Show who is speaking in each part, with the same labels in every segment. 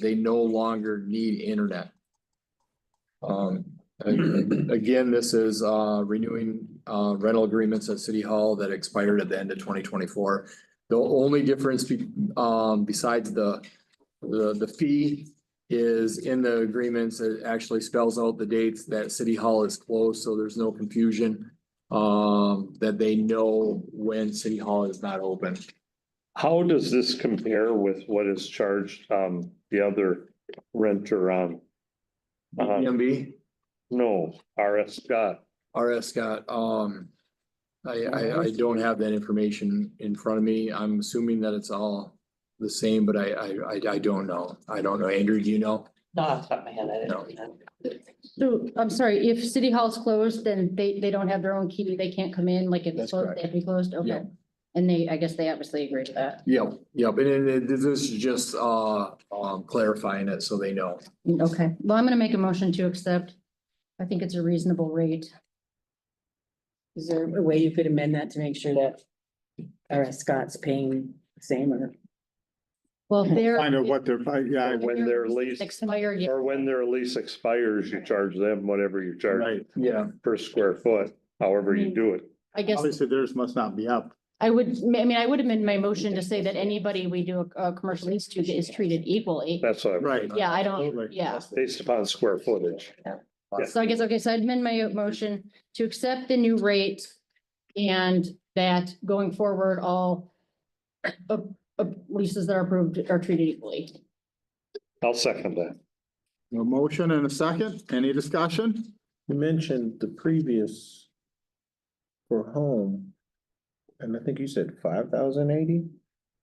Speaker 1: they no longer need internet. Um, a- again, this is, uh, renewing, uh, rental agreements at City Hall that expired at the end of twenty twenty-four. The only difference, be- um, besides the, the, the fee is in the agreements, it actually spells out the dates that City Hall is closed, so there's no confusion. Um, that they know when City Hall is not open.
Speaker 2: How does this compare with what is charged, um, the other renter on? Uh,
Speaker 1: DMV,
Speaker 2: no, RS Scott,
Speaker 1: RS Scott, um. I, I, I don't have that information in front of me. I'm assuming that it's all the same, but I, I, I, I don't know. I don't know. Andrew, do you know?
Speaker 3: No, off the top of my head, I
Speaker 1: No.
Speaker 3: didn't. read that.
Speaker 4: So, I'm sorry, if city hall's closed, then they, they don't have their own key, they can't come in, like if
Speaker 1: That's
Speaker 4: it's closed,
Speaker 1: correct.
Speaker 4: they have to be closed, okay.
Speaker 1: Yeah.
Speaker 4: And they, I guess they obviously agree to that,
Speaker 1: Yep, yep. And it- it- this is just, uh, um, clarifying it so they know.
Speaker 4: okay, well, I'm gonna make a motion to accept. I think it's a reasonable rate,
Speaker 5: Is there a way you could amend that to make sure that RS Scott's paying the same or?
Speaker 4: well, if they're.
Speaker 6: Find out what they're, I- yeah, I-
Speaker 2: when their lease-
Speaker 4: Expired, yeah,
Speaker 2: or when their lease expires, you charge them whatever you charge
Speaker 6: right. Mm.
Speaker 1: Yeah.
Speaker 2: per square foot, however you do it.
Speaker 4: I guess,
Speaker 6: Obviously, theirs must not be up.
Speaker 4: I would, I mean, I would amend my motion to say that anybody we do a, a commercial lease to is treated equally.
Speaker 2: That's what, I'm-
Speaker 6: Right.
Speaker 4: Yeah, I don't,
Speaker 6: Absolutely.
Speaker 4: yeah.
Speaker 2: based upon square footage.
Speaker 4: So I guess, okay, so I'd amend my motion to accept the new rate and that going forward, all uh, uh, leases that are approved are treated equally.
Speaker 2: I'll second that.
Speaker 6: A motion and a second. Any discussion?
Speaker 7: You mentioned the previous for home, and I think you said five thousand eighty,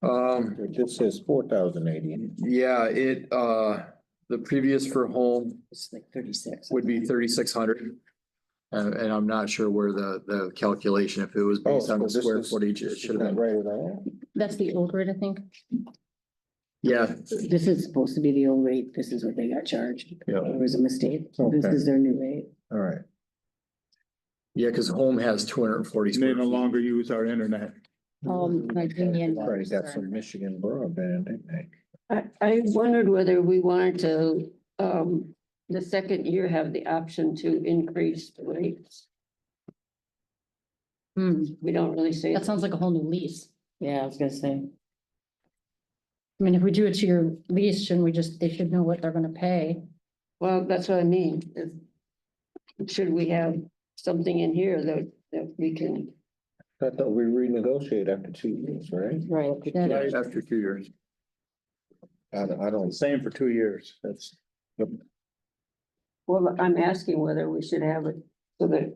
Speaker 1: Um,
Speaker 7: it just says four thousand eighty.
Speaker 1: yeah, it, uh, the previous for home
Speaker 5: It's like thirty-six.
Speaker 1: would be thirty-six hundred. And, and I'm not sure where the, the calculation, if it was
Speaker 7: Oh,
Speaker 1: based on the
Speaker 7: so this
Speaker 1: square
Speaker 7: is-
Speaker 1: footage, it should have been.
Speaker 7: Right at all.
Speaker 4: That's the old rate, I think.
Speaker 1: Yeah,
Speaker 5: This is supposed to be the old rate. This is what they got charged.
Speaker 7: Yeah.
Speaker 5: It was a mistake. This
Speaker 7: Okay.
Speaker 5: is their new rate.
Speaker 7: All right.
Speaker 1: yeah, because home has two hundred and forty.
Speaker 6: And They no longer use our internet.
Speaker 4: Um, like union
Speaker 7: Already got
Speaker 4: members
Speaker 7: some
Speaker 4: are-
Speaker 7: Michigan broadband, didn't they?
Speaker 8: I, I wondered whether we wanted to, um, the second year have the option to increase the rates.
Speaker 4: Hmm,
Speaker 8: We don't really say.
Speaker 4: that sounds like a whole new lease.
Speaker 5: Yeah, I was gonna say.
Speaker 4: I mean, if we do it to your lease, shouldn't we just, they should know what they're gonna pay.
Speaker 8: Well, that's what I mean. is- Should we have something in here that, that we can,
Speaker 7: I thought we renegotiate after two years, right?
Speaker 5: Right.
Speaker 4: That-
Speaker 1: After two years.
Speaker 7: I, don't- I don't,
Speaker 6: Same for two years. That's.
Speaker 8: well, I'm asking whether we should have it so that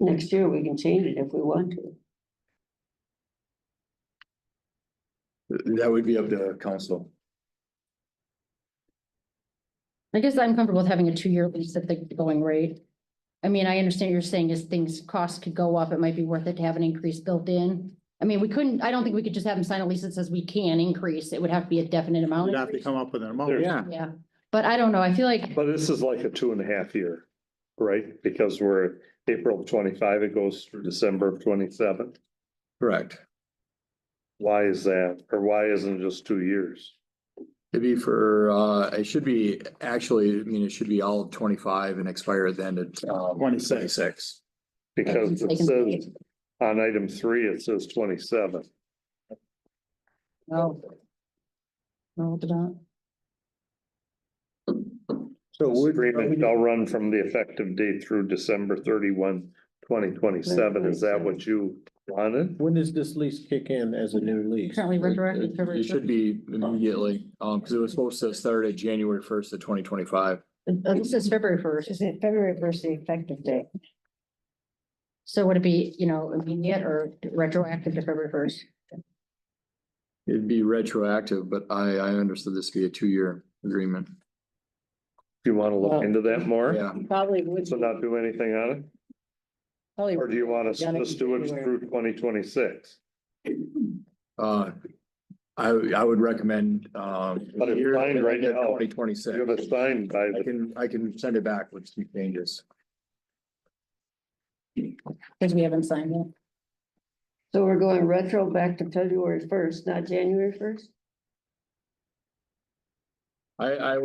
Speaker 8: next year we can change it if we want to.
Speaker 1: That would be up to council.
Speaker 4: I guess I'm comfortable with having a two-year lease at the going rate. I mean, I understand what you're saying is things, costs could go up. It might be worth it to have an increase built in. I mean, we couldn't, I don't think we could just have them sign a lease that says we can increase. It would have to be a definite amount.
Speaker 6: You'd have to come up with an amount.
Speaker 2: There's-
Speaker 6: Yeah.
Speaker 4: Yeah, but I don't know. I feel like,
Speaker 2: But this is like a two and a half year, right? Because we're April twenty-five, it goes through December of twenty-seven.
Speaker 1: Correct.
Speaker 2: Why is that? Or why isn't it just two years?
Speaker 1: It'd be for, uh, it should be, actually, I mean, it should be all of twenty-five and expire at the end of, um,
Speaker 6: Twenty-six.
Speaker 1: twenty-six.
Speaker 2: Because it says on item three, it says twenty-seven.
Speaker 4: no. No, it don't.
Speaker 2: This
Speaker 7: so would,
Speaker 2: Agreement shall run from the effective date through December 31, 2027. Is that what you wanted?
Speaker 7: when does this lease kick in as a new lease?
Speaker 4: Currently retroactive February
Speaker 1: It should be immediately, um, because it was supposed to start at January first of twenty twenty-five.
Speaker 4: This is February first.
Speaker 5: Is it February first, the effective date?
Speaker 4: So would it be, you know, immediate or retroactive to February first?
Speaker 1: It'd be retroactive, but I, I understood this to be a two-year agreement.
Speaker 2: Do you want to look into that more?
Speaker 1: Yeah,
Speaker 5: Probably would.
Speaker 2: So not do anything on it?
Speaker 5: probably
Speaker 2: Or do you want us to
Speaker 5: Done it
Speaker 2: just do it
Speaker 5: everywhere.
Speaker 2: through twenty twenty-six?
Speaker 1: uh, I, I would recommend, um.
Speaker 2: But it's signed right now.
Speaker 1: Twenty twenty-six.
Speaker 2: You have it signed by
Speaker 1: I
Speaker 2: the,
Speaker 1: can, I can send it back with some changes.
Speaker 4: Because we haven't signed yet.
Speaker 8: So we're going retro back to February first, not January first?
Speaker 1: I, I